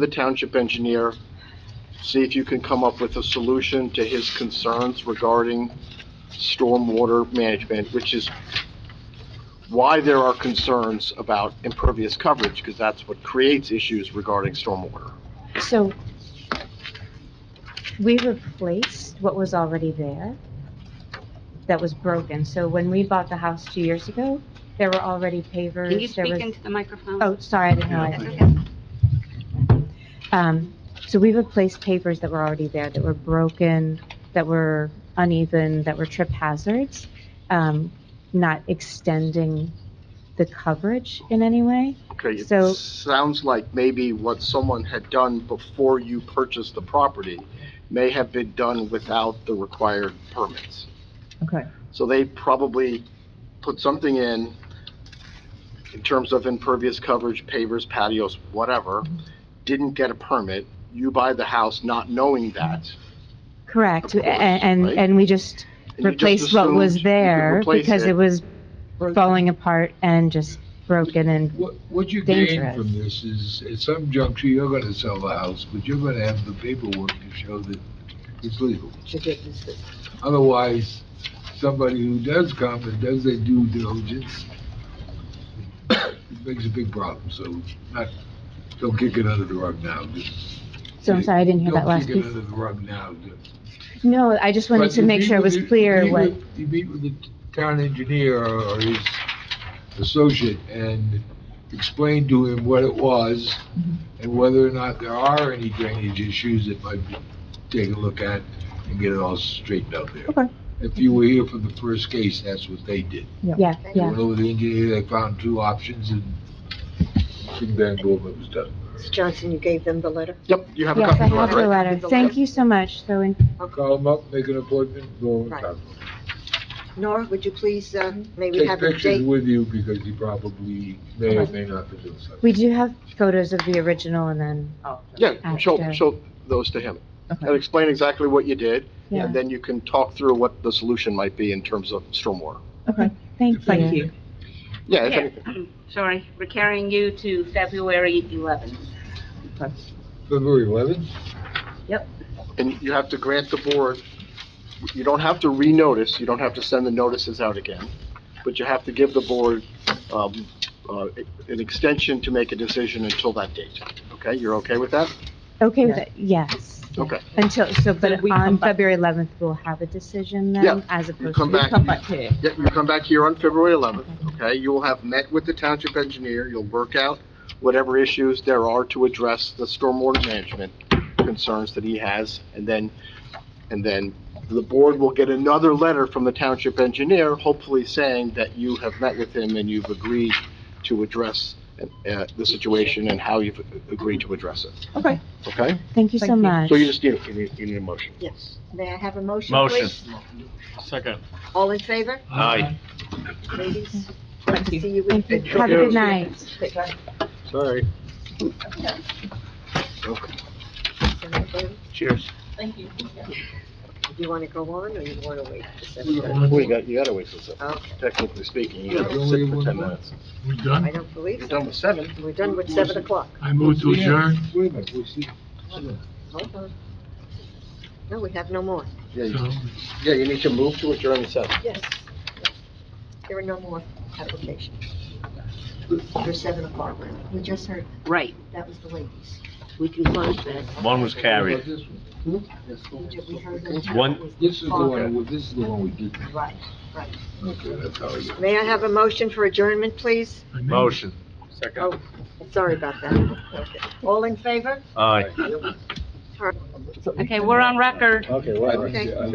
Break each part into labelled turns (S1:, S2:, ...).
S1: the township engineer, see if you can come up with a solution to his concerns regarding stormwater management, which is why there are concerns about impervious coverage, because that's what creates issues regarding stormwater.
S2: So we replaced what was already there that was broken. So when we bought the house two years ago, there were already
S3: Can you
S2: pavers, there
S3: speak
S2: was,
S3: into the microphone?
S2: oh, sorry, I didn't
S3: That's
S2: realize.
S3: okay.
S2: Um, so we replaced pavers that were already there, that were broken, that were uneven, that were trip hazards, um, not extending the coverage in any way.
S1: Okay, it
S2: So-
S1: sounds like maybe what someone had done before you purchased the property may have been done without the required permits.
S4: Okay.
S1: So they probably put something in, in terms of impervious coverage, pavers, patios, whatever,
S2: Mm-hmm.
S1: didn't get a permit, you buy the house not knowing that.
S2: Correct,
S1: Of
S2: and,
S1: course,
S2: and,
S1: right.
S2: and we just
S1: and you just
S2: replaced what
S1: assumed
S2: was
S1: you could
S2: there
S1: replace
S2: because
S1: it.
S2: it was falling apart and just broken and,
S5: What, what you gain
S2: Dangerous.
S5: from this is, at some juncture, you're gonna sell the house, but you're gonna have the paperwork to show that it's legal. Otherwise, somebody who does come and does their due diligence, it makes a big problem, so not, don't kick it under the rug now. just-
S2: so I'm sorry, I didn't hear that last
S5: Don't
S2: piece.
S5: kick it under the rug now. just-
S2: No, I just wanted
S5: But
S2: to
S5: you
S2: make
S5: meet
S2: sure it
S5: with
S2: was
S5: the- you
S2: clear
S5: meet
S2: what,
S5: with- You meet with the town engineer or his associate and explain to him what it was
S2: Mm-hmm.
S5: and whether or not there are any drainage issues that might be, take a look at and get it all straightened out there.
S4: Okay.
S5: If you were here for the first case, that's what they did.
S2: yeah,
S5: They
S2: yeah.
S5: went over the engineer, they found two options and bing bang boom, it was done.
S6: Mr. Johnson, you gave them the letter?
S1: Yep, you have a
S2: Yes,
S1: copy
S2: I
S1: of the
S2: have
S1: letter,
S2: the
S1: right?
S2: letter. Thank you so much, so, in-
S5: Call them up, make an appointment, go and
S6: Right.
S5: talk.
S6: Nora, would you please, uh, may we
S5: Take
S6: have a
S5: pictures
S6: date?
S5: with you because you probably may or may not be doing something.
S2: we do have photos of the original and then,
S1: Yeah, show,
S2: After.
S1: show those to him.
S4: Okay.
S1: And explain exactly what you did,
S2: Yeah.
S1: and then you can talk through what the solution might be in terms of stormwater.
S2: thank
S4: Thank
S2: you.
S4: you.
S1: Yeah, if
S3: Yeah.
S1: anything.
S3: Sorry, we're carrying you to February 11th.
S4: Okay.
S5: February 11th?
S1: And you have to grant the board, you don't have to renotice, you don't have to send the notices out again, but you have to give the board um, uh, an extension to make a decision until that date. Okay, you're okay with that?
S2: Okay with it, yes.
S1: Okay.
S2: Until, so, but
S4: Then we
S2: on
S4: come back.
S2: February 11th, we'll have a decision
S1: Yeah,
S2: then, as
S1: You
S2: opposed
S1: come
S2: to,
S1: back,
S4: Come back here.
S1: yeah, you come back here on February 11th, okay? You will have met with the township engineer, you'll work out whatever issues there are to address the stormwater management concerns that he has, and then, and then the board will get another letter from the township engineer, hopefully saying that you have met with him and you've agreed to address uh, the situation and how you've agreed to address it,
S4: Okay.
S1: okay?
S2: thank you
S4: Thank
S2: so
S4: you.
S2: much.
S1: So you just need, you need you need a motion.
S6: Yes. May I have a motion,
S7: Motion.
S6: please?
S7: Second.
S6: All in favor,
S7: Aye.
S6: ladies?
S4: Thank you.
S6: See you in
S2: Thank you,
S1: Thank
S2: have a good
S1: you.
S2: night.
S1: Sorry.
S6: February.
S7: Cheers.
S3: Thank you.
S6: Do you want to go on or you want to wait? for
S5: We
S6: September?
S5: don't want
S1: Well, you
S5: to-
S1: got, you gotta wait till seven,
S6: Okay,
S1: technically speaking, you
S5: Yeah,
S1: gotta
S5: don't
S1: sit
S5: we
S1: for
S5: want
S1: ten
S5: more?
S1: minutes.
S8: We
S6: I
S8: done?
S6: don't believe
S1: You're
S6: so.
S1: done with seven.
S6: We're done with seven o'clock.
S8: I move to
S5: Yeah,
S8: adjourn.
S5: Wait a minute, we'll see. Hold on.
S6: Hold on. No, we have no more.
S1: Yeah, you-
S8: So
S1: yeah, you need to move to adjourn at seven.
S6: Yes. There are no more applications for seven o'clock. We just heard,
S3: Right,
S6: that was the ladies.
S3: we can close that.
S7: One was
S5: What about
S7: carried.
S5: this one? This
S6: We
S5: one?
S6: ju- we heard them.
S7: One-
S5: This is the one, we- this is the one we did.
S6: Right, right.
S5: Okay, that's how I got.
S6: May I have a motion for adjournment, please?
S8: I made-
S7: Motion. Second.
S6: Oh, sorry about that. Okay. All in favor?
S7: Aye.
S3: Okay, we're on record.
S1: Okay,
S6: Okay.
S1: I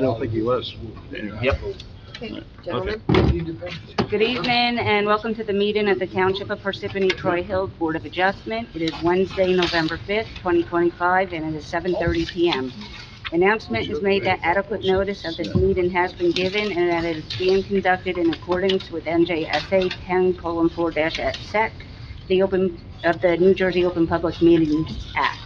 S1: don't think he was.
S7: Yep.
S6: Okay, Gentlemen,
S3: Good evening and welcome to the meeting at the Township of Parsippany Troy Hill Board of Adjustment. It is Wednesday, November 5th, 2025, and it is 7:30 PM. Announcement is made that adequate notice of this meeting has been given and that it is being conducted in accordance with NJSA 10:4-at sec, the open, of the New Jersey Open Public Meetings Act.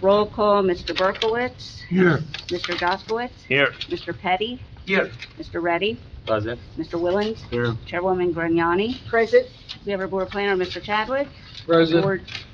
S3: Roll call, Mr. Berkowitz,
S8: Here.
S3: Mr. Goskowitz,
S7: Here.
S3: Mr. Petty,
S7: Here.
S3: Mr. Reddy,
S7: Present.
S3: Mr. Willens,
S7: Here.
S3: Chairwoman Grignani,
S6: present?
S3: we have our board planner, Mr. Chadwick.
S5: President,
S3: Board-